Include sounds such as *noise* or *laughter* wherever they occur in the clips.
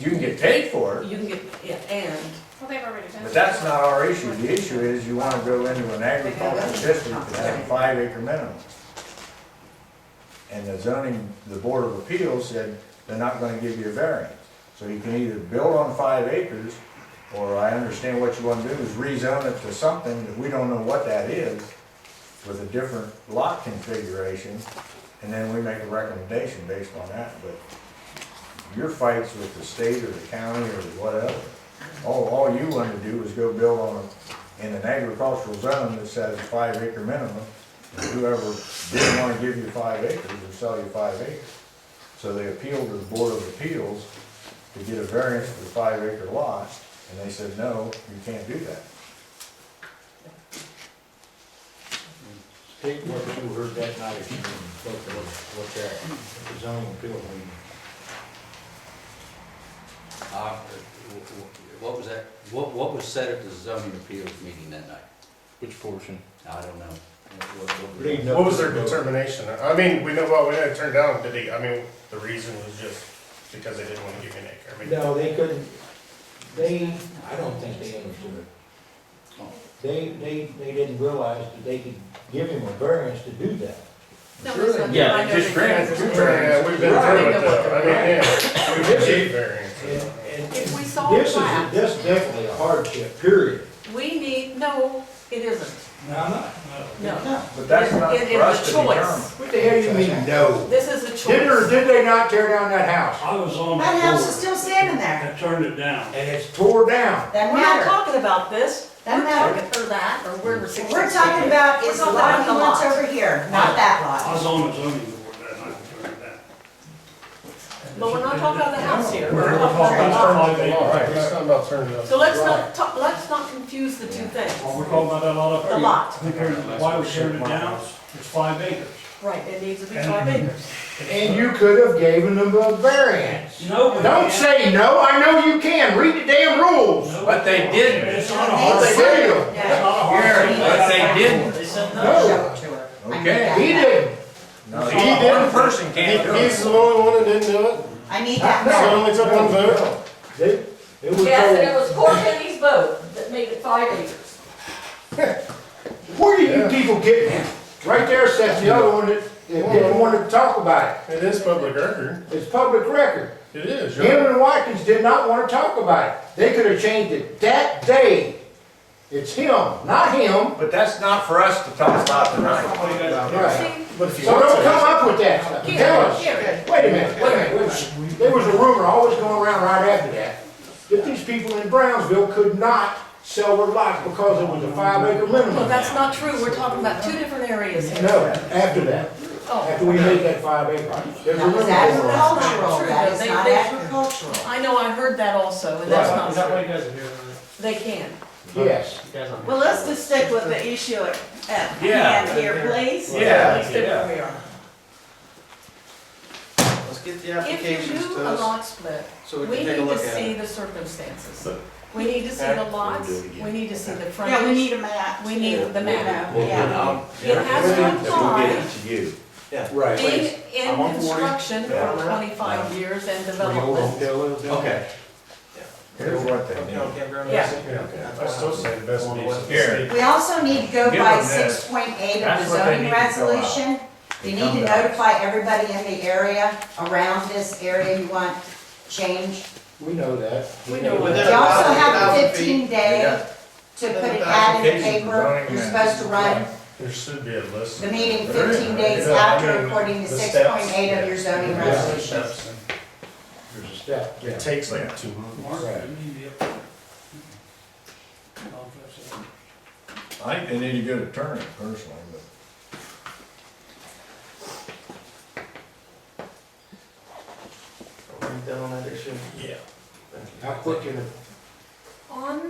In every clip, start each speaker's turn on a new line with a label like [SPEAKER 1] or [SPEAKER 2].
[SPEAKER 1] You can get paid for it,
[SPEAKER 2] You can get, yeah, and,
[SPEAKER 3] Well, they've already done.
[SPEAKER 1] but that's not our issue. The issue is you wanna go into an agricultural district that has a five acre minimum. And the zoning, the Board of Appeals said they're not gonna give you a variance. So you can either build on five acres, or I understand what you wanna do is rezone it to something that we don't know what that is with a different lot configuration, and then we make a recommendation based on that, but your fights with the state or the county or whatever, all, all you wanna do is go build on, a- in an agricultural zone that says five acre minimum, and whoever didn't wanna give you five acres would sell you five acres. So they appealed to the Board of Appeals to get a variance for the five acre lot, and they said, no, you can't do that.
[SPEAKER 4] State what you heard that night, if you spoke to what that, the zoning appeal meeting.
[SPEAKER 5] Uh, w- w- What was that, what, what was said at the zoning appeals meeting that night?
[SPEAKER 6] Which portion?
[SPEAKER 5] I don't know. What- what-
[SPEAKER 4] Leading up
[SPEAKER 7] What was
[SPEAKER 4] to
[SPEAKER 7] their
[SPEAKER 4] the vote.
[SPEAKER 7] determination? I mean, we know, well, we know it turned down, did they, I mean, the reason was just because they didn't wanna give you an acre. I mean,
[SPEAKER 4] No, they couldn't, they, I don't think they understood. They, they, they didn't realize that they could give him a variance to do that.
[SPEAKER 2] no,
[SPEAKER 1] Sure
[SPEAKER 2] it's not.
[SPEAKER 6] Yeah,
[SPEAKER 2] I know
[SPEAKER 1] just
[SPEAKER 2] they-
[SPEAKER 1] grant it.
[SPEAKER 7] Yeah, we've been through it though. I mean, yeah, we've achieved
[SPEAKER 4] And,
[SPEAKER 7] variance.
[SPEAKER 4] and
[SPEAKER 2] If we saw
[SPEAKER 4] this is,
[SPEAKER 2] that-
[SPEAKER 4] this is definitely a hardship, period.
[SPEAKER 2] We need, no, it isn't,
[SPEAKER 4] No, I'm not.
[SPEAKER 2] no.
[SPEAKER 4] No.
[SPEAKER 1] But that's not
[SPEAKER 2] It- it is
[SPEAKER 1] for us
[SPEAKER 2] a
[SPEAKER 1] to
[SPEAKER 2] choice.
[SPEAKER 1] determine.
[SPEAKER 4] What the hell you mean, no?
[SPEAKER 2] This is a choice.
[SPEAKER 4] Did or did they not tear down that house?
[SPEAKER 8] I was on the
[SPEAKER 9] That house is
[SPEAKER 8] board.
[SPEAKER 9] still standing there.
[SPEAKER 8] I turned it down.
[SPEAKER 4] And it's tore down.
[SPEAKER 9] That
[SPEAKER 2] We're not
[SPEAKER 9] matter.
[SPEAKER 2] talking about this, we're
[SPEAKER 9] That matter.
[SPEAKER 2] talking for that, or we're restricted.
[SPEAKER 9] We're talking about
[SPEAKER 2] We're
[SPEAKER 9] is the
[SPEAKER 2] talking
[SPEAKER 9] lot
[SPEAKER 2] about
[SPEAKER 9] he
[SPEAKER 2] the
[SPEAKER 9] wants
[SPEAKER 2] lot.
[SPEAKER 9] over here, not that
[SPEAKER 8] I
[SPEAKER 9] lot.
[SPEAKER 8] was on the zoning board that night, I turned it down.
[SPEAKER 2] But we're not talking about the house here, we're
[SPEAKER 8] We're talking
[SPEAKER 2] talking about
[SPEAKER 8] about
[SPEAKER 2] the lot.
[SPEAKER 8] the
[SPEAKER 7] All
[SPEAKER 8] lot.
[SPEAKER 7] right, it's not about turning down.
[SPEAKER 2] So let's not, talk- let's not confuse the two
[SPEAKER 8] Well,
[SPEAKER 2] things.
[SPEAKER 8] We're talking about that lot up there.
[SPEAKER 2] The lot.
[SPEAKER 8] We turned it- Why we turned it down, it's five acres.
[SPEAKER 2] Right, it needs to be five acres.
[SPEAKER 4] And you could have given them a variance.
[SPEAKER 8] No, we
[SPEAKER 4] Don't
[SPEAKER 8] can't.
[SPEAKER 4] say no, I know you can, read the damn rules.
[SPEAKER 8] No,
[SPEAKER 6] But they didn't.
[SPEAKER 8] It's not a
[SPEAKER 4] They
[SPEAKER 8] hardship.
[SPEAKER 4] did,
[SPEAKER 8] It's not a
[SPEAKER 9] Yeah.
[SPEAKER 8] hardship.
[SPEAKER 6] But they didn't.
[SPEAKER 4] no,
[SPEAKER 1] Okay.
[SPEAKER 4] he didn't.
[SPEAKER 1] No,
[SPEAKER 7] He did.
[SPEAKER 1] one person can't do
[SPEAKER 7] He- He's
[SPEAKER 1] it.
[SPEAKER 7] the only one that didn't do it.
[SPEAKER 9] I need that
[SPEAKER 7] So it
[SPEAKER 9] back.
[SPEAKER 7] only took one vote.
[SPEAKER 4] They- It was
[SPEAKER 2] Yes, and it
[SPEAKER 4] told,
[SPEAKER 2] was poor Penny's vote that made it five acres.
[SPEAKER 4] where do you people get it? Right there sits the other one that that didn't want to talk about
[SPEAKER 7] It is public record.
[SPEAKER 4] it. It's public record.
[SPEAKER 7] It is. you're-
[SPEAKER 4] Him and Watkins did not want to talk about it. They could have changed it that day. It's him, not him.
[SPEAKER 1] But that's not for us to talk about tonight.
[SPEAKER 8] Well, you guys-
[SPEAKER 4] Right.
[SPEAKER 2] See,
[SPEAKER 7] But if you
[SPEAKER 4] So
[SPEAKER 7] want
[SPEAKER 4] don't
[SPEAKER 7] to-
[SPEAKER 4] come up with that stuff.
[SPEAKER 2] here,
[SPEAKER 4] Tell us.
[SPEAKER 2] here.
[SPEAKER 4] Wait a minute, wait a minute, wait a minute. There was a rumor always going around right after that, that these people in Brownsville could not sell their lots because it was a five acre
[SPEAKER 2] Well,
[SPEAKER 4] minimum.
[SPEAKER 2] that's not true, we're talking about two different areas here.
[SPEAKER 4] No, after that,
[SPEAKER 2] Oh.
[SPEAKER 4] after we made that five acre, there's a
[SPEAKER 9] That
[SPEAKER 4] rumor
[SPEAKER 9] was
[SPEAKER 4] going around.
[SPEAKER 9] agricultural, that is not agricultural.
[SPEAKER 2] I know, I heard that also, and that's not true.
[SPEAKER 8] you guys are doing?
[SPEAKER 2] They can.
[SPEAKER 4] Yes.
[SPEAKER 9] Well, let's just stick with the issue at at
[SPEAKER 1] Yeah.
[SPEAKER 9] hand here, please.
[SPEAKER 1] Yeah,
[SPEAKER 9] Let's stick
[SPEAKER 1] yeah.
[SPEAKER 9] where we are.
[SPEAKER 6] Let's get the
[SPEAKER 2] If you
[SPEAKER 6] applications
[SPEAKER 2] do
[SPEAKER 6] to
[SPEAKER 2] a
[SPEAKER 6] us,
[SPEAKER 2] lot split,
[SPEAKER 6] so we
[SPEAKER 2] we
[SPEAKER 6] can
[SPEAKER 2] need
[SPEAKER 6] take a
[SPEAKER 2] to
[SPEAKER 6] look at
[SPEAKER 2] see
[SPEAKER 6] it.
[SPEAKER 2] the circumstances. We need to see the lots, we need to see the frontage.
[SPEAKER 9] Yeah, we need a map.
[SPEAKER 2] We need the map.
[SPEAKER 9] You know, Yeah.
[SPEAKER 5] um,
[SPEAKER 2] It has to apply,
[SPEAKER 1] to you.
[SPEAKER 4] Right.
[SPEAKER 2] being in
[SPEAKER 6] I'm on board.
[SPEAKER 2] construction
[SPEAKER 1] Yeah.
[SPEAKER 2] for twenty-five years and development.
[SPEAKER 4] Okay.
[SPEAKER 6] Okay.
[SPEAKER 1] Here's what they
[SPEAKER 6] You
[SPEAKER 1] need.
[SPEAKER 6] know, campground.
[SPEAKER 2] Yeah.
[SPEAKER 6] Okay.
[SPEAKER 7] I still say the best needs to be.
[SPEAKER 1] Here.
[SPEAKER 7] state.
[SPEAKER 9] We also need to go
[SPEAKER 1] Give
[SPEAKER 9] by
[SPEAKER 1] them this.
[SPEAKER 9] six point eight of the
[SPEAKER 1] That's what they
[SPEAKER 9] zoning
[SPEAKER 1] need to fill out.
[SPEAKER 9] resolution. You need
[SPEAKER 1] Come
[SPEAKER 9] to
[SPEAKER 1] back.
[SPEAKER 9] notify everybody in the area, around this area you want changed.
[SPEAKER 4] We know that.
[SPEAKER 2] We know
[SPEAKER 4] that.
[SPEAKER 2] what-
[SPEAKER 9] You
[SPEAKER 6] Within a
[SPEAKER 9] also
[SPEAKER 6] thousand-
[SPEAKER 9] have a
[SPEAKER 6] thousand feet,
[SPEAKER 9] fifteen
[SPEAKER 1] You
[SPEAKER 9] day
[SPEAKER 1] got
[SPEAKER 9] to
[SPEAKER 6] Then
[SPEAKER 9] put an
[SPEAKER 6] the
[SPEAKER 9] ad in the
[SPEAKER 1] application for
[SPEAKER 9] paper.
[SPEAKER 1] zoning
[SPEAKER 9] You're
[SPEAKER 1] map.
[SPEAKER 9] supposed to run
[SPEAKER 7] There should be a list.
[SPEAKER 9] the meeting
[SPEAKER 7] There is.
[SPEAKER 9] fifteen days
[SPEAKER 7] Yeah, I mean,
[SPEAKER 9] after according to
[SPEAKER 7] the
[SPEAKER 9] six
[SPEAKER 7] steps.
[SPEAKER 9] point eight of your zoning
[SPEAKER 4] Yeah.
[SPEAKER 9] resolution.
[SPEAKER 4] There's a step, yeah.
[SPEAKER 7] It takes like two months.
[SPEAKER 8] Mark,
[SPEAKER 4] Right.
[SPEAKER 8] you need to be up there. Oh, that's it.
[SPEAKER 1] I think they need a good attorney personally, but.
[SPEAKER 6] Are we done on that issue?
[SPEAKER 7] Yeah.
[SPEAKER 6] Thank you.
[SPEAKER 4] How quick can it
[SPEAKER 2] On,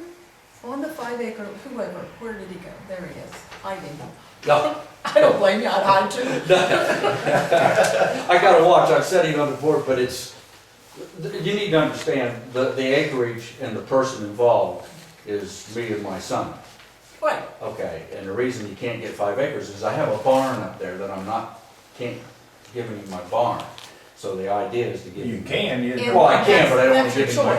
[SPEAKER 2] on the five acre, whoever, where did he go? There he is. I didn't.
[SPEAKER 5] No,
[SPEAKER 2] *laughs*
[SPEAKER 5] *laughs*
[SPEAKER 2] I don't blame you, I'd hide too.
[SPEAKER 5] I gotta watch, I'm sitting on the board, but it's, you need to understand, the, the acreage and the person involved is me and my son.
[SPEAKER 2] Right,
[SPEAKER 5] Okay, and the reason you can't get five acres is I have a barn up there that I'm not, can't give any of my barn. So the idea is to give.
[SPEAKER 10] You can, you.
[SPEAKER 1] And
[SPEAKER 5] Well, I can, but I don't wanna
[SPEAKER 1] that's your
[SPEAKER 5] give anybody
[SPEAKER 1] choice.